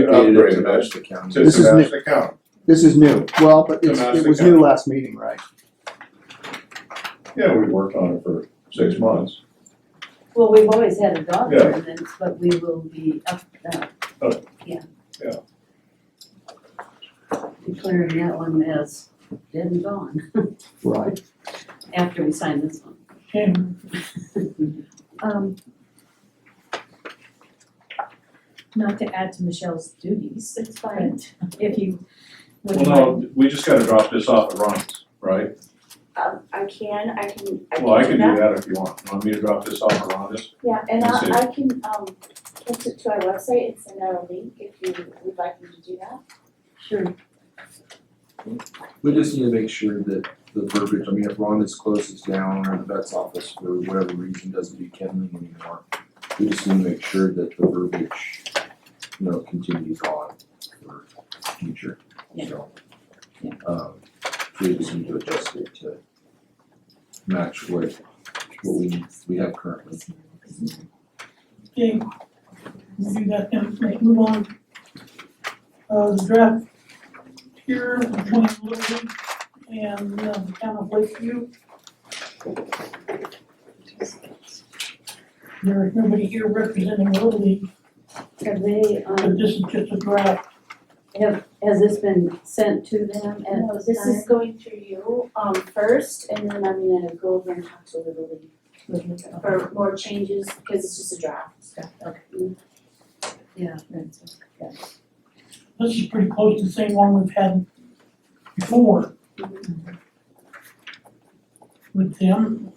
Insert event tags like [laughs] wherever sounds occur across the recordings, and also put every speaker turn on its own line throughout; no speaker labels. dedicated it to
upgrade
those.
the county.
This
This
is
is
new.
the county.
This is new, well, but it's, it was new last meeting, right?
Yeah, we worked on it for six months,
Well, we've always had a dog
Yeah.
ordinance, but we will be up, uh,
Oh.
yeah.
Yeah.
Declaring that one as dead and gone
Right.
after we sign this one.
[laughs] Um. Not to add to Michelle's duties,
It's
but if you
Well,
wouldn't mind.
no, we just gotta drop this off at Ron's, right?
Um, I can, I can, I can do that.
Well, I can do that if you want, want me to drop this off at Ron's?
Yeah, and I,
Let's see.
I can, um, post it to our website and send out a link if you would like me to do that.
Sure,
We just need to make sure that the verbiage, I mean, if Rhonda's closes down or the vet's office for whatever reason doesn't do kennel anymore, we just need to make sure that the verbiage, you know, continues on for future, so.
Yeah.
Um, we just need to adjust it to match what, what we, we have currently.
Okay, we'll do that then, let's move on. Uh, the draft here between Little League and uh, the town of Lakeview. There is nobody here representing Little League,
have they,
but
um,
this is just a draft.
has this been sent to them at
No,
this
this is
time?
going through you, um, first, and then I'm gonna go over and talk to Little League for more changes, because it's just a draft.
Yeah,
This is pretty close to the same one we've had before. With them.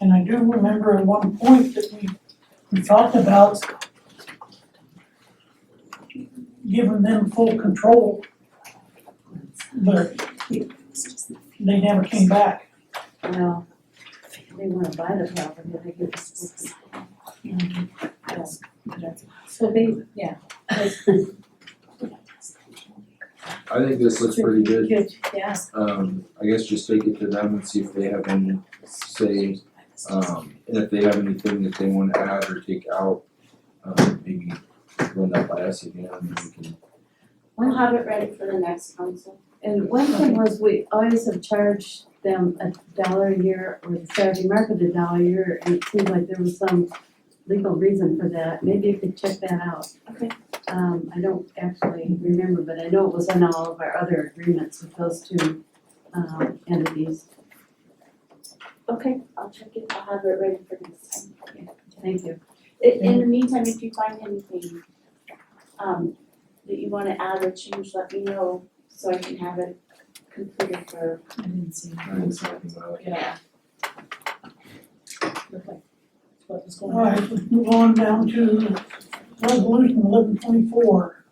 And I do remember at one point that we, we talked about giving them full control, but they never came back.
well, they wanna buy the property, they could just.
So they, yeah,
I think this looks pretty good,
good, yeah,
um, I guess just take it to them and see if they have any say,
Uh,
um, and if they have anything that they wanna add or take out, um, maybe run that by us again, and we can.
I'll have it ready for the next council.
And one thing was, we always have charged them a dollar a year, or the Saturday market a dollar a year, and it seemed like there was some legal reason for that, maybe you could check that out.
Okay.
Um, I don't actually remember, but I know it was in all of our other agreements with those two, um, entities,
Okay, I'll check it, I'll have it ready for next time.
thank you.
In, in the meantime, if you find anything, um, that you wanna add or change, let me know, so I can have it completed for
I didn't see that.
I didn't say anything about it.
Yeah. Looked like what was going on.
Alright, let's move on down to resolution eleven twenty-four.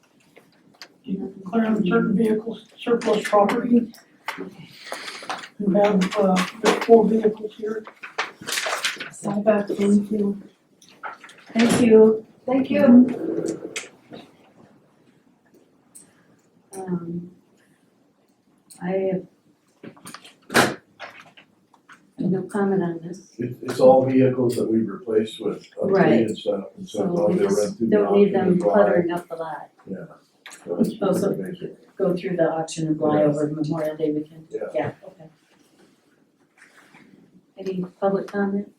Declaring certain vehicles surplus property. We have, uh, there's four vehicles here.
Thank you. Thank you. Um, I have no comment on this,
It, it's all vehicles that we replaced with
Right.
updated stuff, and so
so
long
we
they run
just
through the
don't need
auction
them
and buy.
cluttering up the lot.
Yeah. So it's
Oh, so-
pretty basic.
Go through the auction and fly over Memorial Day weekend.
Yeah.
Yeah, okay.
Any public comment?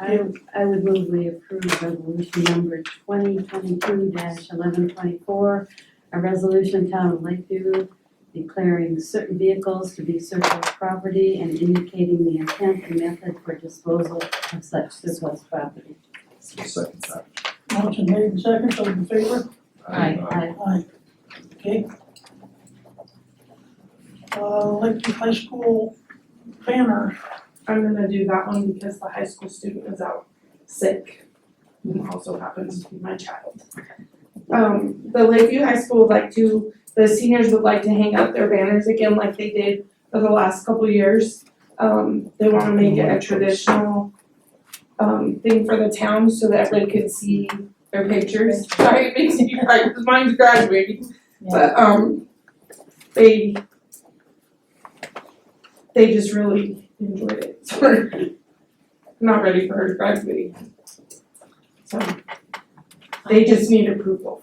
I, I would move we approve resolution number twenty twenty-two eleven twenty-four, a resolution town of Lakeview declaring certain vehicles to be surplus property and indicating the intent and method for disposal of such surplus property.
Second time.
Motion made and second, those in favor?
Aye.
I,
Aye. Okay. Uh, Lakeview High School banner,
I'm gonna do that one because the high school student is out sick, who also happens to be my child. Um, the Lakeview High School would like to, the seniors would like to hang up their banners again like they did for the last couple years. Um, they wanna make it a traditional, um, thing for the town so that everybody could see their pictures. [laughs] Sorry, it makes me cry, because mine's graduating, but, um, they, they just really enjoyed it, [laughs] so we're not ready for her graduating. So, They just need approval